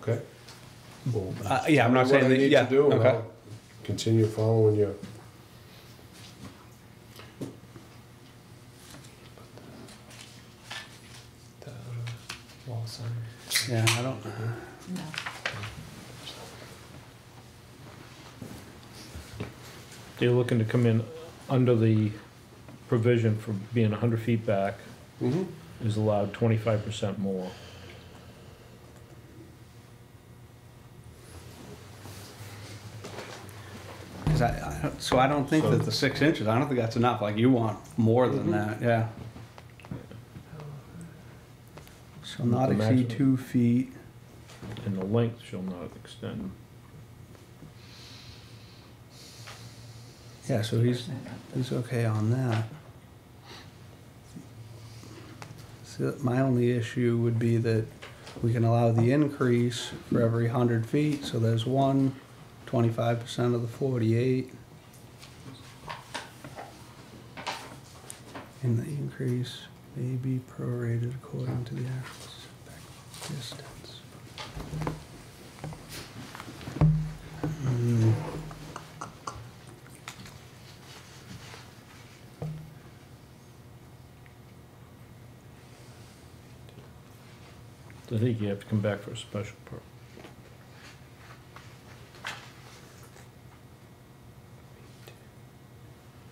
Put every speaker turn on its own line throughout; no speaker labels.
okay? Well,
Uh, yeah,
tell
I'm not
me
saying
what I
that-
need to
yeah,
do, and
okay.
I'll Continue following you.
The wall sign.
Yeah, I don't.
No.
You're looking to come in under the provision for being hundred feet back
Mm-hmm.
is allowed twenty-five percent more.
Cause I, I don't, so I don't think that the six inches, I don't think that's enough, like you want more
Mm-hmm.
than that, yeah. Shall not
The
exceed
maximum.
two feet,
And the length shall not extend.
yeah, so he's, he's okay on that. So my only issue would be that we can allow the increase for every hundred feet, so there's one, twenty-five percent of the forty-eight. And the increase may be prorated according to the actual setback distance. Hmm.
I think you have to come back for a special permit.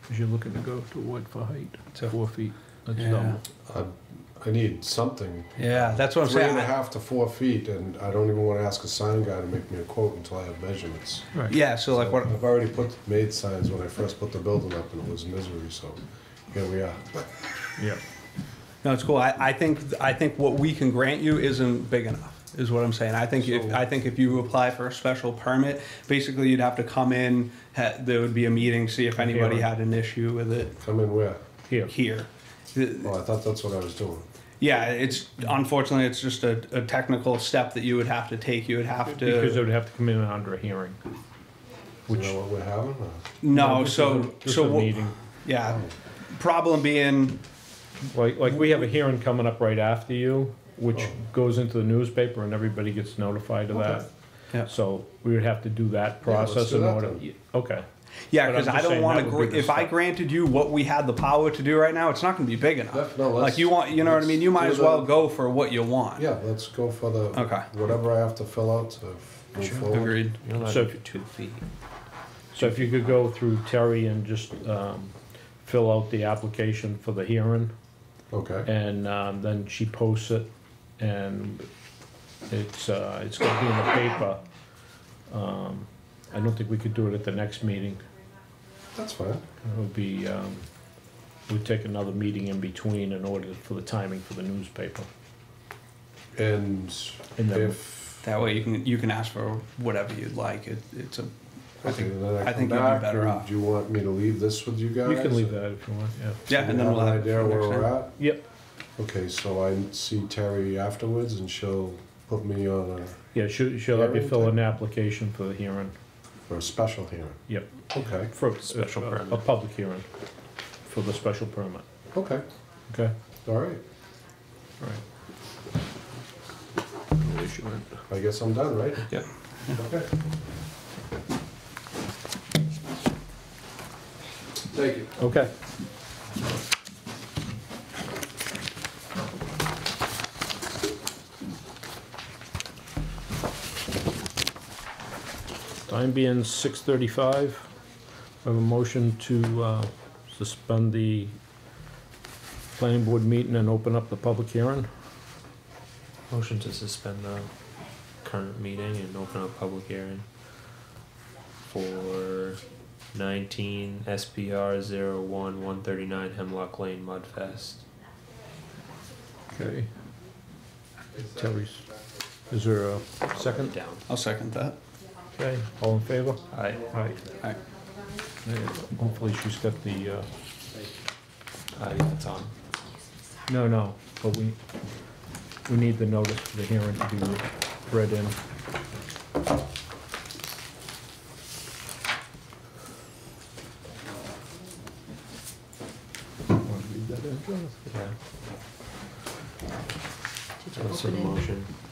Cause you're looking to go to what for height?
So-
Four feet. That's
Yeah.
double.
I, I need something,
Yeah, that's what I'm
three and a
saying.
half to four feet, and I don't even wanna ask a sign guy to make me a quote until I have measurements.
Right.
Yeah, so like what,
I've already put, made signs when I first put the building up, and it was misery, so here we are.
Yeah.
no, it's cool. I, I think, I think what we can grant you isn't big enough, is what I'm saying. I think, if
So-
I think if you apply for a special permit, basically you'd have to come in, ha, there would be a meeting, see if anybody
Yeah.
had an issue with it
Come in where?
Here.
here. The-
Oh, I thought that's what I was doing.
Yeah, it's, unfortunately, it's just a, a technical step that you would have to take. You would have
Because it
to,
would have to come in under a hearing.
You
Which-
know what we're having? or-
no,
just a-
so,
just
so,
a
what-
meeting.
yeah. Problem being,
Like, like we have a hearing coming up right after you, which goes into the newspaper and everybody gets notified of that.
Yeah.
So we would have to do that
Yeah, let's
process
do
in
that
order,
then.
okay.
Yeah,
But I'm
because I
just
don't
saying
want
that
to.
would be
Gr-
the
if I
step.
granted you what we had the power to do right now, it's not going to be big
Yeah,
enough.
no,
like
let's-
you want, you know what I
let's
mean. You might
do
as well
the-
go for what you want.
Yeah, let's go for the,
Okay.
whatever I have to fill out to f- move forward.
agreed.
So if you two feet. So if you could go through Terry and just, um, fill out the application for the hearing
Okay,
and, um, then she posts it and it's, uh, it's gonna be in the paper. Um, I don't think we could do it at the next meeting.
that's fine.
It would be, um, we'd take another meeting in between in order for the timing for the newspaper.
And
And then-
if,
That way you can you can ask for whatever you'd like. It, it's a. I
okay,
think.
then
I
I come
think you'd be
back,
better
or
off.
do you want me to leave this with you guys?
You can leave that if you want, yeah.
Yeah,
You
and then
have
we'll
an
have it
Idea
for
where
next
we're
time.
at?
Yep,
Okay, so I see Terry afterwards and she'll put me on a,
yeah, she'll, she'll have you
Hearing
fill
type.
an application for the hearing,
for a special hearing.
yep.
Okay,
For a special permit. A public hearing for the special permit,
okay,
okay?
all right.
All right.
I guess I'm done, right?
Yeah.
Okay. Thank you.
Okay. Time being six thirty-five, I have a motion to, uh, suspend the planning board meeting and open up the public hearing.
Motion to suspend the current meeting and open a public hearing for nineteen SPR zero one one thirty-nine Hemlock Lane Mudfest.
Okay. Terry's, is there a second?
Down.
I'll second that.
Okay, all in favor?
Aye.
Aye.
Aye.
Hopefully she's got the, uh,
Aye, that's on.
No, no, but we, we need the notice for the hearing to be read in.
Yeah. I'll send a motion